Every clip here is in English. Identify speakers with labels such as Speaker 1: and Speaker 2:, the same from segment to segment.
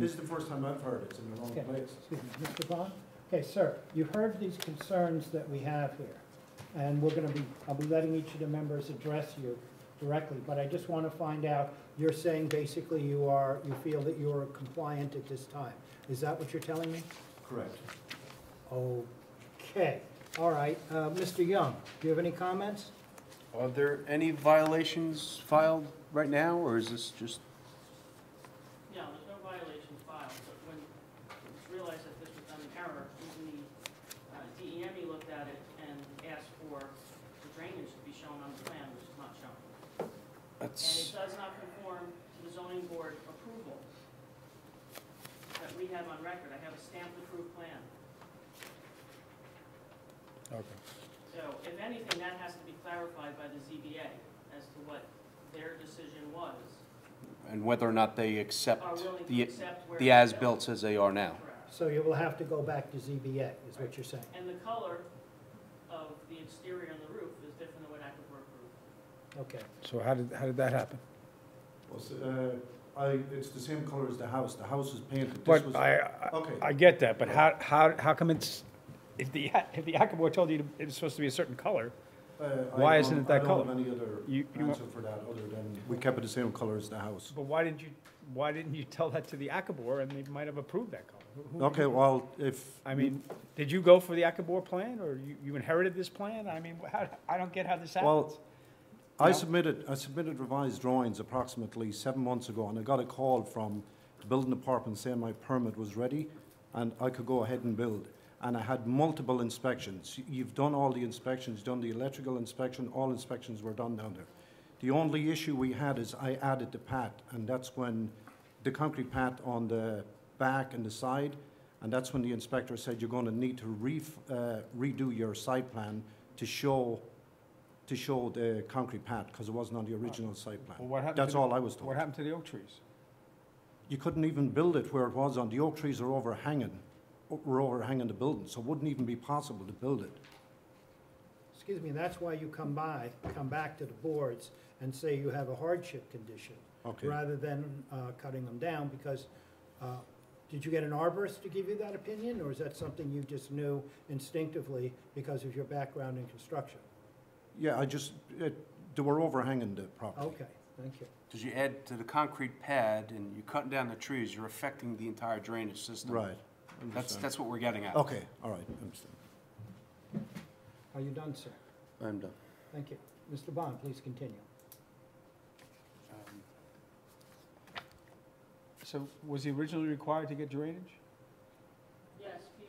Speaker 1: This is the first time I've heard it, it's in the wrong
Speaker 2: Okay.
Speaker 1: place.
Speaker 2: Excuse me, Mr. Vaughn? Okay, sir, you heard these concerns that we have here, and we're gonna be, I'll be letting each of the members address you directly, but I just wanna find out, you're saying basically you are, you feel that you are compliant at this time. Is that what you're telling me?
Speaker 1: Correct.
Speaker 2: Okay, all right. Uh, Mr. Young, do you have any comments?
Speaker 3: Are there any violations filed right now, or is this just,
Speaker 4: No, there's no violation filed, but when it was realized that this was done in error, even the uh, DEME looked at it and asked for the drainage to be shown on the plan, which is not shown. And it
Speaker 3: that's,
Speaker 4: does not conform to the zoning board approval that we have on record. I have a stamped approved plan.
Speaker 3: okay.
Speaker 4: So if anything, that has to be clarified by the ZBA as to what their decision was,
Speaker 3: And whether or not they
Speaker 4: are
Speaker 3: accept
Speaker 4: willing to
Speaker 3: the,
Speaker 4: accept where.
Speaker 3: the
Speaker 4: it's
Speaker 3: as-built as they are now?
Speaker 4: Correct.
Speaker 2: So you will have to go back to ZBA, is what you're saying?
Speaker 4: And the color of the exterior on the roof is different than what Akabor approved.
Speaker 2: Okay,
Speaker 5: So how did, how did that happen?
Speaker 1: Well, s- uh, I, it's the same color as the house, the house is painted, this was.
Speaker 5: But I, I-
Speaker 1: Okay. uh,
Speaker 5: I get that, but how, how, how come it's, if the, if the Akabor told you it's supposed to be a certain color,
Speaker 1: uh, I
Speaker 5: why
Speaker 1: don't-
Speaker 5: isn't it that
Speaker 1: I
Speaker 5: color?
Speaker 1: don't have any other
Speaker 5: You- you-
Speaker 1: answer for that, other than, we kept it the same color as the house.
Speaker 5: but why didn't you, why didn't you tell that to the Akabor and they might have approved that color? Who- who-
Speaker 1: Okay, well, if.
Speaker 5: I mean, did you go for the Akabor plan or you, you inherited this plan? I mean, how, I don't get how this
Speaker 1: Well,
Speaker 5: happens.
Speaker 1: I
Speaker 5: No.
Speaker 1: submitted, I submitted revised drawings approximately seven months ago, and I got a call from the building department saying my permit was ready, and I could go ahead and build. And I had multiple inspections. You've done all the inspections, done the electrical inspection, all inspections were done down there. The only issue we had is I added the pad, and that's when, the concrete pad on the back and the side, and that's when the inspector said you're gonna need to ref, uh, redo your site plan to show to show the concrete pad, because it wasn't on the original site
Speaker 5: Well,
Speaker 1: plan.
Speaker 5: what happened to
Speaker 1: That's
Speaker 5: the-
Speaker 1: all I was told.
Speaker 5: What happened to the oak trees?
Speaker 1: You couldn't even build it where it was on, the oak trees are overhanging, were overhanging the building, so it wouldn't even be possible to build it.
Speaker 2: excuse me, that's why you come by, come back to the boards and say you have a hardship condition,
Speaker 1: Okay.
Speaker 2: rather than uh, cutting them down, because, uh, did you get an arborist to give you that opinion, or is that something you just knew instinctively because of your background in construction?
Speaker 1: Yeah, I just, it, they were overhanging the property.
Speaker 2: Okay, thank you.
Speaker 3: Because you add to the concrete pad and you're cutting down the trees, you're affecting the entire drainage system.
Speaker 1: Right.
Speaker 3: That's,
Speaker 1: Understand.
Speaker 3: that's what we're getting at.
Speaker 1: Okay, all right, understand.
Speaker 2: Are you done, sir?
Speaker 3: I'm done.
Speaker 2: Thank you. Mr. Bond, please continue.
Speaker 3: Um,
Speaker 5: So was he originally required to get drainage?
Speaker 4: Yes, P-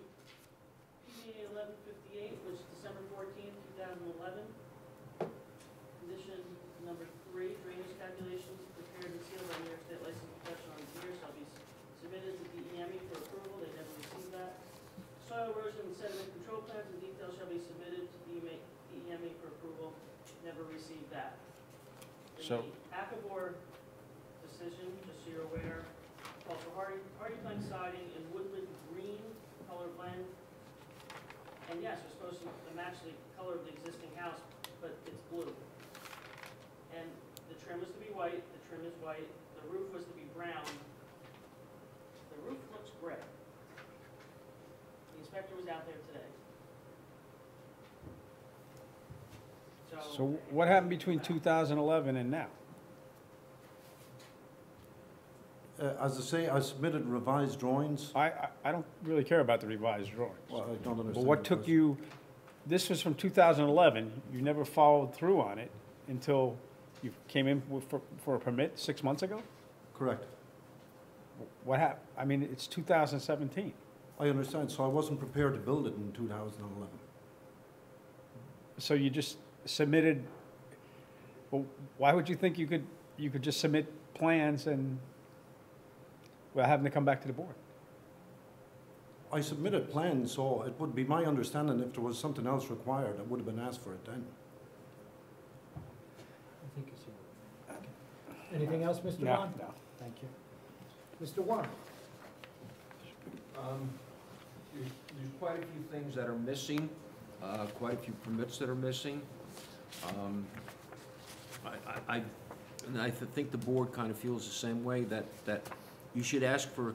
Speaker 4: PBA eleven fifty-eight was December fourteenth, two thousand eleven. Condition number three, drainage calculations prepared and sealed by New York State Licensed Professional Engineer shall be s- submitted to DEME E for approval, they never received that. Soil erosion and sediment control plans in detail shall be submitted to E DEME DEME for approval, never received that.
Speaker 3: So-
Speaker 4: The Akabor decision, just so you're aware, called for hardy, hardy plank siding in woodland green color blend. And yes, it's supposed to match the color of the existing house, but it's blue. And the trim was to be white, the trim is white, the roof was to be brown. The roof looks gray. The inspector was out there today.
Speaker 5: So what happened between 2011 and now?
Speaker 1: Uh, as I say, I submitted revised drawings.
Speaker 5: I, I, I don't really care about the revised drawings.
Speaker 1: Well, I don't understand.
Speaker 5: But what
Speaker 1: the
Speaker 5: took
Speaker 1: question.
Speaker 5: you, this was from 2011, you never followed through on it until you came in with- for, for a permit six months ago?
Speaker 1: Correct.
Speaker 5: What hap, I mean, it's 2017.
Speaker 1: I understand, so I wasn't prepared to build it in two thousand and eleven.
Speaker 5: So you just submitted, well, why would you think you could, you could just submit plans and, without having to come back to the board?
Speaker 1: I submitted plans, so it would be my understanding if there was something else required, I would have been asked for it then.
Speaker 2: I think it's Anything else, Mr.
Speaker 5: No,
Speaker 2: Bond?
Speaker 5: no.
Speaker 2: Thank you. Mr. Warren?
Speaker 6: Um, There's there's quite a few things that are missing, uh, quite a few permits that are missing. Um, I, I- I, and I think the board kind of feels the same way, that, that you should ask for a